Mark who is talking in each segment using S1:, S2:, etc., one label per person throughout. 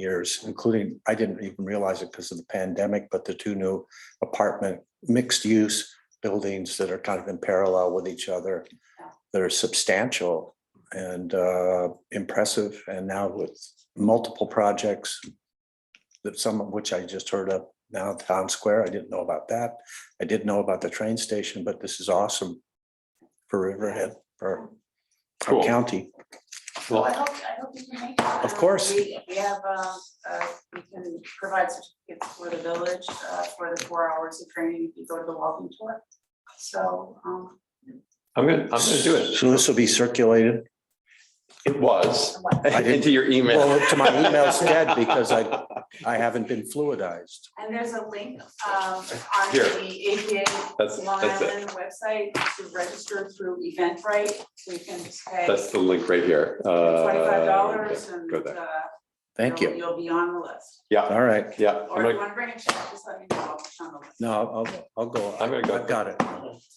S1: years, including, I didn't even realize it because of the pandemic, but the two new apartment mixed-use buildings that are kind of in parallel with each other, that are substantial and uh, impressive, and now with multiple projects, that some of which I just heard of now, Town Square, I didn't know about that. I did know about the train station, but this is awesome for Riverhead, for our
S2: Cool.
S1: county.
S2: Well-
S3: I hope, I hope you can make it. Um,
S1: Of course.
S3: We we have, um, uh, we can provide certificates for the village, uh, for the four hours of training if you go to the walking tour. So, um,
S2: I'm gonna, I'm gonna do it.
S1: So this will be circulated?
S2: It was
S3: what-
S1: didn't-
S2: into your email.
S1: Well, to my email's dead because I, I haven't been fluidized.
S3: and there's a link, um, on
S2: Here.
S3: the
S2: That's,
S3: APA Long
S2: that's it.
S3: Island website to register through Eventbrite, so you can just pay
S2: That's the link right here. Uh,
S3: twenty-five dollars and,
S2: Go there.
S3: uh,
S1: Thank
S3: you'll-
S1: you.
S3: You'll be on the list.
S2: Yeah,
S1: All right.
S2: yeah. I'm
S3: Or if you
S2: gonna-
S3: wanna bring a check, just let me know, I'll put you on the list.
S1: No, I'll, I'll go.
S2: I'm gonna go.
S1: I've got it.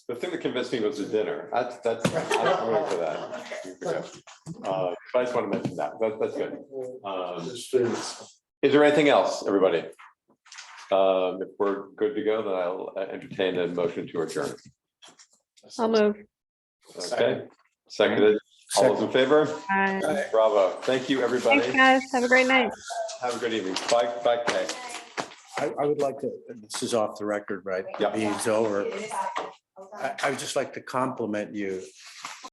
S2: The thing that convinced me was the dinner. That's, that's, I'm going for that. Uh, But I just want to mention that. That, that's good. Um, Is there anything else, everybody? Um, If we're good to go, then I'll uh, entertain a motion to adjourn.
S4: I'll move.
S2: Okay? Seconded. All those in favor?
S4: Bye.
S2: Bravo. Thank you, everybody.
S4: Thanks, guys. Have a great night.
S2: Have a good evening. Bye, bye, Kay.
S1: I, I would like to, this is off the record, right?
S2: Yeah.
S1: Meeting's over.
S3: It is happening. Okay.
S1: I, I would just like to compliment you